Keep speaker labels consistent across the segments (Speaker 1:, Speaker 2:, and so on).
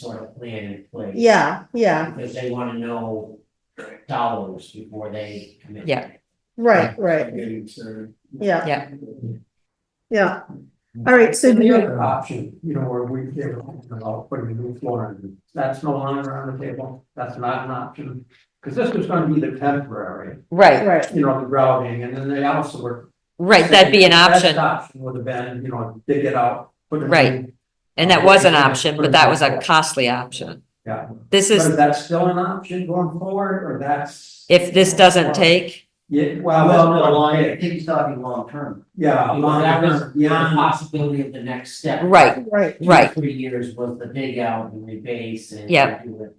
Speaker 1: sort of plan in place.
Speaker 2: Yeah, yeah,
Speaker 1: Because they wanna know dollars before they commit.
Speaker 3: Yeah.
Speaker 2: right, right,
Speaker 4: Getting started.
Speaker 2: yeah,
Speaker 3: Yeah.
Speaker 2: yeah. All right, so
Speaker 4: And
Speaker 2: do
Speaker 4: the
Speaker 2: you,
Speaker 4: other option, you know, where we give, I'll put a new floor in, that's no longer on the table, that's not an option. Cause this was gonna be the temporary,
Speaker 3: Right,
Speaker 2: right,
Speaker 4: you know, the grouting, and then they also were.
Speaker 3: right, that'd be an
Speaker 4: saying the best
Speaker 3: option,
Speaker 4: Option would have been, you know, dig it out, put it in.
Speaker 3: Right. and that was an option, but that was a
Speaker 4: But
Speaker 3: costly option.
Speaker 4: Yeah.
Speaker 3: This
Speaker 4: is
Speaker 3: is,
Speaker 4: that still an option going forward, or that's?
Speaker 3: if this doesn't take,
Speaker 4: Yeah, well,
Speaker 5: Well, no,
Speaker 4: well,
Speaker 5: I
Speaker 4: yeah,
Speaker 5: think he's talking long term.
Speaker 4: yeah.
Speaker 1: You know, that was the
Speaker 4: Yeah,
Speaker 1: possibility of the next step.
Speaker 3: right,
Speaker 2: right.
Speaker 1: Two,
Speaker 3: right.
Speaker 1: Three years was the dig out and rebase and.
Speaker 3: Yeah.
Speaker 1: do it.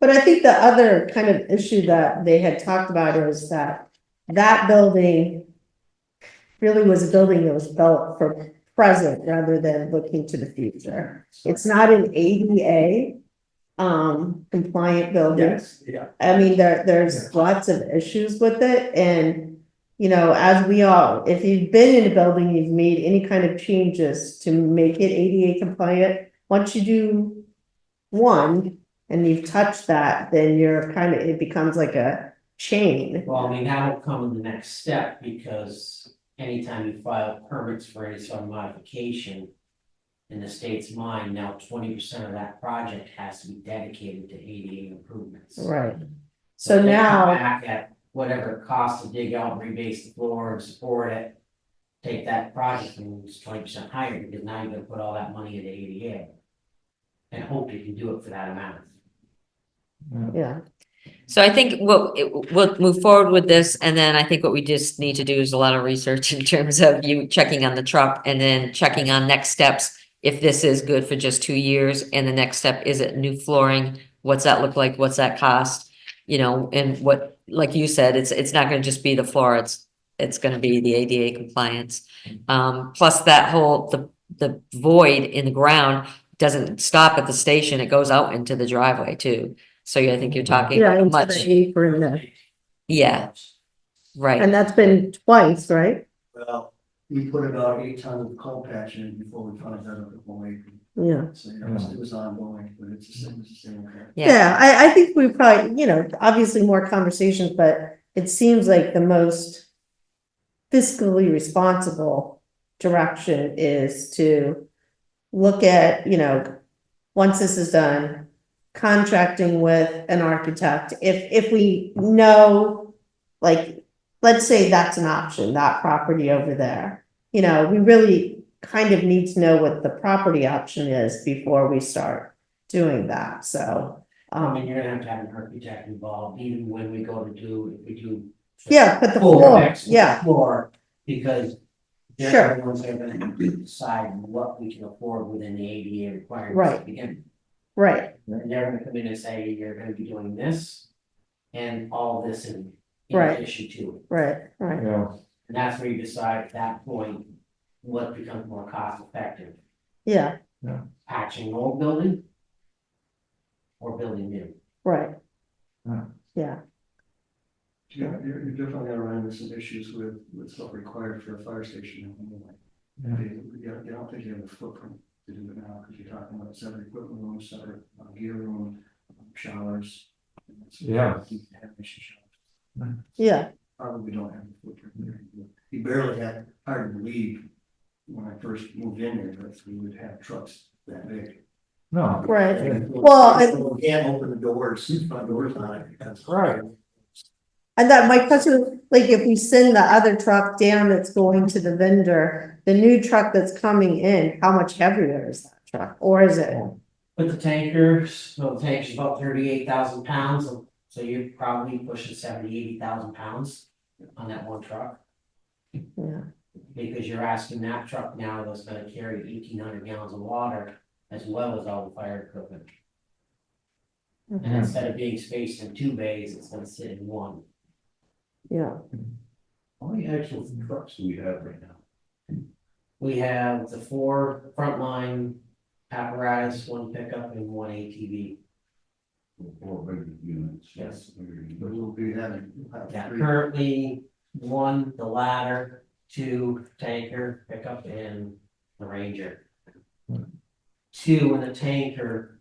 Speaker 2: But I think the other kind of issue that they had talked about is that that building really was a building that was built for present rather than looking to the future. It's not an ADA um compliant building.
Speaker 4: yes, yeah.
Speaker 2: I mean, there there's lots of issues with it and you know, as we all, if you've been in a building, you've made any kind of changes to make it ADA compliant, once you do one and you've touched that, then you're kind of, it becomes like a chain.
Speaker 1: Well, I mean, that'll come in the next step because anytime you file permits for any sort of modification. In the state's mind, now twenty percent of that project has to be dedicated to ADA improvements.
Speaker 2: Right. So
Speaker 1: if they come
Speaker 2: now,
Speaker 1: Back at whatever it costs to dig out, rebase the floor and support it. Take that project and it's twenty percent higher because now you're gonna put all that money into ADA. And hope you can do it for that amount.
Speaker 2: yeah,
Speaker 3: So I think what, it- we'll move forward with this, and then I think what we just need to do is a lot of research in terms of you checking on the truck and then checking on next steps. If this is good for just two years, and the next step is it new flooring, what's that look like, what's that cost? You know, and what, like you said, it's, it's not gonna just be the floor, it's, it's gonna be the ADA compliance. Um, plus that whole, the, the void in the ground doesn't stop at the station, it goes out into the driveway too. So yeah, I think you're talking
Speaker 2: yeah,
Speaker 3: about
Speaker 2: into
Speaker 3: much.
Speaker 2: the apron there.
Speaker 3: Yeah, right,
Speaker 2: And that's been twice, right?
Speaker 5: Well, we put about eight tons of coal patch in before we found out about the whole apron.
Speaker 2: Yeah.
Speaker 5: So you know, it was- it was ongoing, but it's the same, it's the same. kind.
Speaker 3: yeah,
Speaker 2: Yeah, I, I think we probably, you know, obviously more conversations, but it seems like the most fiscally responsible direction is to look at, you know, once this is done, contracting with an architect, if, if we know, like, let's say that's an option, that property over there. You know, we really kind of need to know what the property option is before we start doing that, so.
Speaker 1: I mean,
Speaker 2: Um,
Speaker 1: you're gonna have to have an architect involved even when we go to do, if we do.
Speaker 2: yeah, but the
Speaker 1: Floor,
Speaker 2: floor,
Speaker 1: next
Speaker 2: yeah,
Speaker 1: Floor, because.
Speaker 2: Sure.
Speaker 1: They're the ones that are gonna have to decide what we can afford within the ADA requirements.
Speaker 2: Right.
Speaker 1: to begin.
Speaker 2: right,
Speaker 1: And they're gonna come in and say, you're gonna be doing this. And all this in. in
Speaker 2: Right.
Speaker 1: addition to it.
Speaker 2: right, right,
Speaker 4: Yeah.
Speaker 1: And that's where you decide at that point, what becomes more cost effective,
Speaker 2: yeah,
Speaker 1: patching old building. Or building new.
Speaker 2: right.
Speaker 4: Yeah.
Speaker 2: Yeah,
Speaker 5: Yeah, you're, you're definitely gonna run into some issues with, with what's required for a fire station. in Illinois. They, they don't- they don't think you have the footprint to do it now, because you're talking about separate equipment room, separate uh, gear room, um, showers.
Speaker 4: Yeah.
Speaker 5: You have issue showers.
Speaker 2: yeah,
Speaker 5: probably don't have a footprint there. He barely had, hard to believe when I first moved in there, that we would have trucks that big.
Speaker 4: No.
Speaker 2: right, Well, I-
Speaker 5: You Can't open the doors, the front doors on it. because-
Speaker 4: Right.
Speaker 2: and that, my question, was, like, if we send the other truck down that's going to the vendor, the new truck that's coming in, how much heavier is that truck, or is it?
Speaker 1: With the tankers, so the tank's about thirty-eight thousand pounds, so- so you're probably pushing 70, 80,000 pounds on that one truck.
Speaker 2: Yeah.
Speaker 1: Because you're asking that truck now that's gonna carry eighteen hundred gallons of water as well as all the fire equipment. And instead of being spaced in two bays, it's gonna sit in one.
Speaker 2: Yeah,
Speaker 5: How many actual trucks do we have right now?
Speaker 1: We have the four frontline apparatus, one pickup and one ATV.
Speaker 5: Four big units.
Speaker 1: Yes.
Speaker 5: But we'll be having. we'll have
Speaker 1: Yeah,
Speaker 5: three.
Speaker 1: currently, one, the ladder, two, tanker, pickup and the ranger. Two in the tanker